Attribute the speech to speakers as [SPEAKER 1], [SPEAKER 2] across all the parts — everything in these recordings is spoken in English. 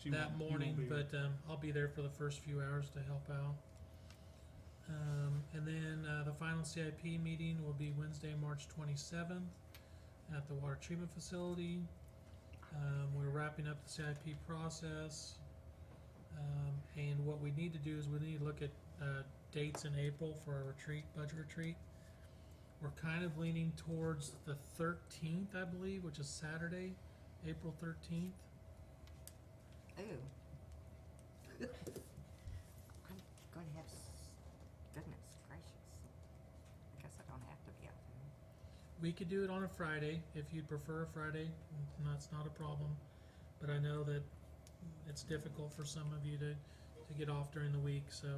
[SPEAKER 1] you
[SPEAKER 2] that
[SPEAKER 1] won't- you
[SPEAKER 2] morning,
[SPEAKER 1] won't be
[SPEAKER 2] but um, I'll be there for the first few hours to help out. Um, and then uh, the final CIP meeting will be Wednesday, March 27th at the water treatment facility. Um, we're wrapping up the CIP process. Um, and what we need to do is we need to look at uh, dates in April for our retreat, budget retreat. We're kind of leaning towards the 13th, I believe, which is Saturday, April 13th.
[SPEAKER 3] Ooh. I'm going to have, s- goodness gracious. I guess I don't have to be out there.
[SPEAKER 2] We could do it on a Friday if you'd prefer a Friday. That's not a problem. But I know that it's difficult for some of you to, to get off during the week, so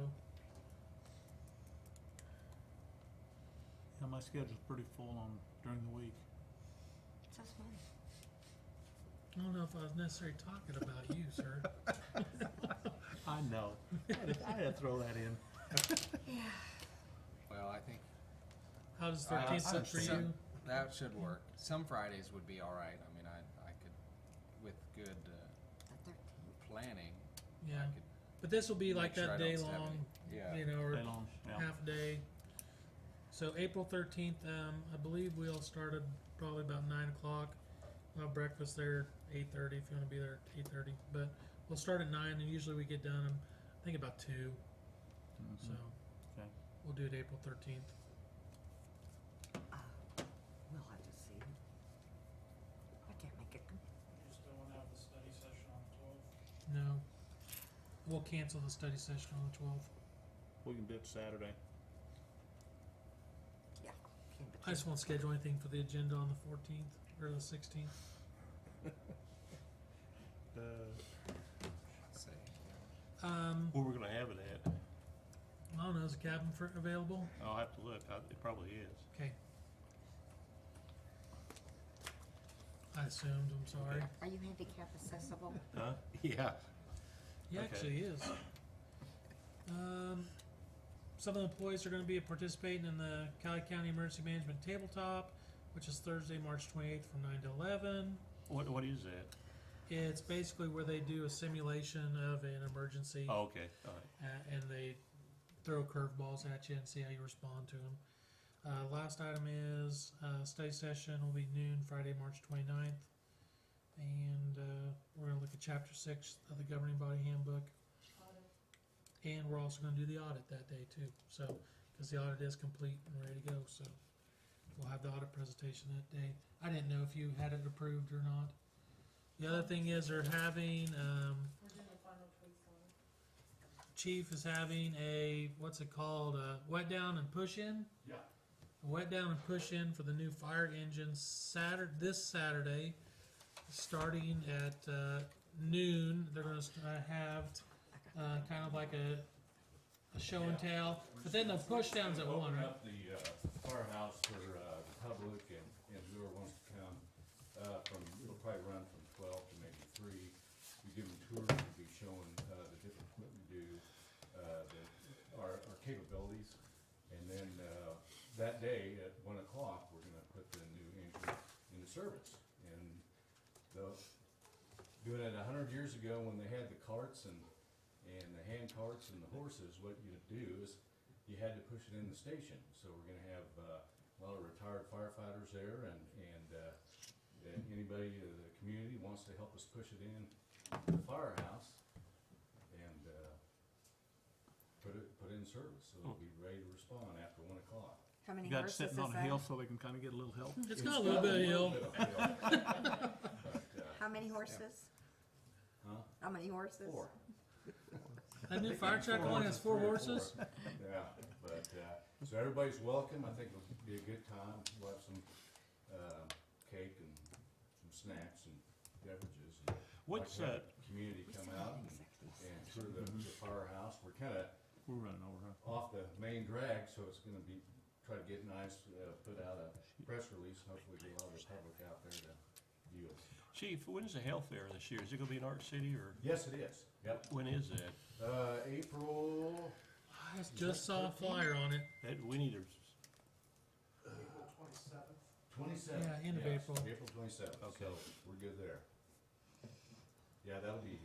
[SPEAKER 1] Yeah, my schedule's pretty full on during the week.
[SPEAKER 3] So it's fun.
[SPEAKER 2] I don't know if I was necessarily talking about you, sir.
[SPEAKER 1] I know. I had to- I had to throw that in.
[SPEAKER 3] Yeah.
[SPEAKER 4] Well, I think
[SPEAKER 2] How does
[SPEAKER 4] Uh, I- I
[SPEAKER 2] thirteenth look for you?
[SPEAKER 4] understand. that should work. Some Fridays would be all right. I mean, I, I could, with good uh,
[SPEAKER 3] The thirteenth.
[SPEAKER 4] planning,
[SPEAKER 2] Yeah,
[SPEAKER 4] I could
[SPEAKER 2] but this will be like
[SPEAKER 4] make sure
[SPEAKER 2] that
[SPEAKER 4] I don't
[SPEAKER 2] day
[SPEAKER 4] stab
[SPEAKER 2] long,
[SPEAKER 4] any- Yeah.
[SPEAKER 2] you know, or
[SPEAKER 1] Day long, yeah.
[SPEAKER 2] half day. So April thirteenth, um, I believe we all started probably about nine o'clock. We'll have breakfast there eight thirty if you want to be there at eight thirty. But we'll start at nine and usually we get done um, I think about 2
[SPEAKER 1] Mhm.
[SPEAKER 2] So
[SPEAKER 1] Okay.
[SPEAKER 2] we'll do it April thirteenth.
[SPEAKER 3] uh, We'll have to see. I can't make it.
[SPEAKER 5] You're still gonna have the study session on the twelfth?
[SPEAKER 2] No. We'll cancel the study session on the twelfth.
[SPEAKER 1] We can do it Saturday.
[SPEAKER 3] Can't be
[SPEAKER 2] I just won't schedule anything for the agenda on the fourteenth or the sixteenth.
[SPEAKER 1] Uh,
[SPEAKER 4] Say, yeah.
[SPEAKER 2] Um,
[SPEAKER 1] where we're gonna have it at?
[SPEAKER 2] I don't know, is a cabin for available?
[SPEAKER 1] I'll have to look. I, it probably is.
[SPEAKER 2] Okay. I assumed, I'm sorry.
[SPEAKER 3] Are you handicap accessible?
[SPEAKER 1] Huh? Yeah.
[SPEAKER 2] He
[SPEAKER 1] Okay.
[SPEAKER 2] actually is. Um, some of the employees are gonna be participating in the Cali County Emergency Management Tabletop, which is Thursday, March twenty-eighth from nine to eleven.
[SPEAKER 1] What, what is that?
[SPEAKER 2] It's basically where they do a simulation of an emergency.
[SPEAKER 1] Oh, okay, all right.
[SPEAKER 2] uh, and they throw curveballs at you and see how you respond to them. Uh, last item is uh, study session will be noon Friday, March 29th. And uh, we're going to look at Chapter 6 of the Governing Body Handbook. And we're also going to do the audit that day, too. So, because the audit is complete and ready to go. So, we'll have the audit presentation that day. I didn't know if you had it approved or not. The other thing is, they're having um, Chief is having a what's it called? A wet down and push in.
[SPEAKER 5] Yeah.
[SPEAKER 2] A wet down and push in for the new fire engine Saturday this Saturday, starting at uh, noon. They're going to have uh, kind of like a a show and tell, but then the push downs at one,
[SPEAKER 6] Open
[SPEAKER 2] right?
[SPEAKER 6] up the uh, firehouse for uh, the public and, and whoever wants to come, uh, from, it'll probably run from twelve to maybe three. We give them tours, we'll be showing, uh, the different equipment we do, uh, the, our, our capabilities. And then, uh, that day at one o'clock, we're gonna put the new engine into service. And the, doing it a hundred years ago when they had the carts and, and the hand carts and the horses, what you'd do is you had to push it in the station. So we're gonna have uh, a lot of retired firefighters there and, and, uh, and anybody in the community wants to help us push it in the firehouse and, uh, put it, put it in service, so it'll be ready to respond after one o'clock.
[SPEAKER 3] How many
[SPEAKER 1] You got it
[SPEAKER 3] horses is
[SPEAKER 1] sitting on a
[SPEAKER 3] that?
[SPEAKER 1] hill so they can kinda get a little help.
[SPEAKER 2] It's got a little bit of hill.
[SPEAKER 6] But, uh,
[SPEAKER 3] How many horses?
[SPEAKER 6] Huh?
[SPEAKER 3] How many horses?
[SPEAKER 6] Four.
[SPEAKER 2] That new fire truck only has four horses.
[SPEAKER 6] Yeah, but, uh, so everybody's welcome, I think it'll be a good time, we'll have some, uh, cake and some snacks and beverages. and
[SPEAKER 1] What's,
[SPEAKER 6] like to
[SPEAKER 1] uh,
[SPEAKER 6] have the Community
[SPEAKER 3] We
[SPEAKER 6] come
[SPEAKER 3] still have
[SPEAKER 6] out and,
[SPEAKER 3] executive
[SPEAKER 6] and tour the, the firehouse, we're kinda
[SPEAKER 1] We're running over, huh?
[SPEAKER 6] off the main drag, so it's gonna be, try to get nice, uh, put out a press release, hopefully get a lot of the public out there to view us.
[SPEAKER 7] Chief, when is the health fair this year? Is it gonna be in Art City or
[SPEAKER 6] Yes, it is, yep,
[SPEAKER 7] when is that?
[SPEAKER 6] uh, April,
[SPEAKER 2] I just saw a flyer on it.
[SPEAKER 7] That, we need to
[SPEAKER 5] April twenty-seventh.
[SPEAKER 6] Twenty-seventh.
[SPEAKER 2] Yeah, end of April.
[SPEAKER 6] April twenty-seventh, so
[SPEAKER 7] Okay.
[SPEAKER 6] we're good there. Yeah, that'll be